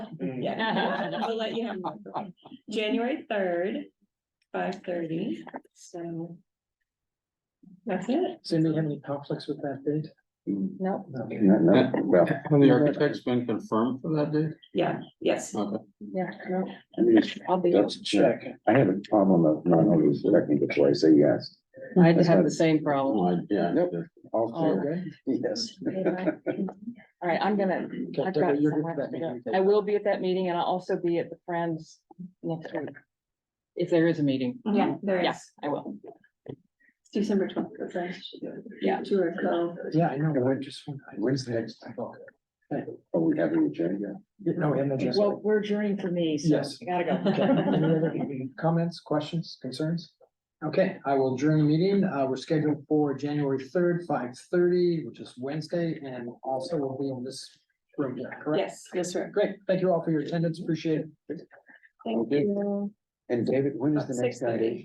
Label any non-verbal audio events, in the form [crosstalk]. yet. [laughs] I'll Mm. let you know. January third, five thirty, so. That's it. Does anybody have any conflicts with that date? No. No. No, Uh, no, well, And the architect's been confirmed for that date? Yeah, yes. Okay. Yeah. I mean, [laughs] it's- I'll be, that's, I have a problem of not always checking before I say yes. I had to have the same problem. Oh, I- Yeah. Nope. All All clear, right, yes. All right, I'm gonna, I've got Deborah, you're so good for much that to do. meeting. I will be at that meeting and I'll also be at the Friends next week. If there is a meeting, Mm-hmm. Yeah, there is. yes, I will. It's December twelfth, that's when I should do it. Yeah. Two or so. Yeah, I know, but I just. When's the next? Are we having a agenda? No, we haven't addressed. Well, we're adjourning for me, so Yes. I gotta go. Okay. Any other Comments, questions, concerns? Okay, I will adjourn the meeting. Uh, we're scheduled for January third, five thirty, which is Wednesday, and also we will be in this room here, correct? Yes, yes, sir. Great, thank you all for your attendance, appreciate it. Thank Okay. you. And David, when is the next 6:30. idea?